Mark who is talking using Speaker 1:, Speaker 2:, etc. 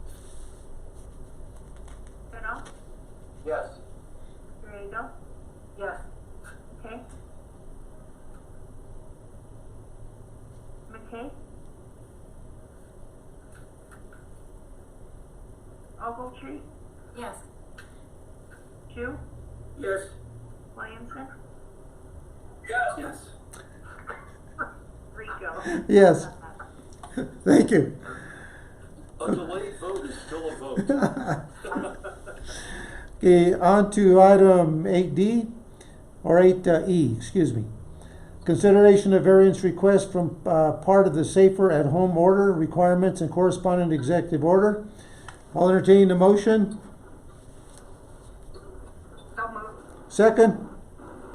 Speaker 1: Ogletree,
Speaker 2: Yes.
Speaker 1: Jew,
Speaker 3: Yes.
Speaker 1: Williamson,
Speaker 3: Yes.
Speaker 1: Rico.
Speaker 4: Yes. Thank you.
Speaker 3: A delayed vote is still a vote.
Speaker 4: Okay, on to item eight D, or eight E, excuse me. Consideration of variance request from, uh, part of the safer at home order requirements and correspondent executive order. I'll entertain the motion.
Speaker 1: So moved.
Speaker 4: Second,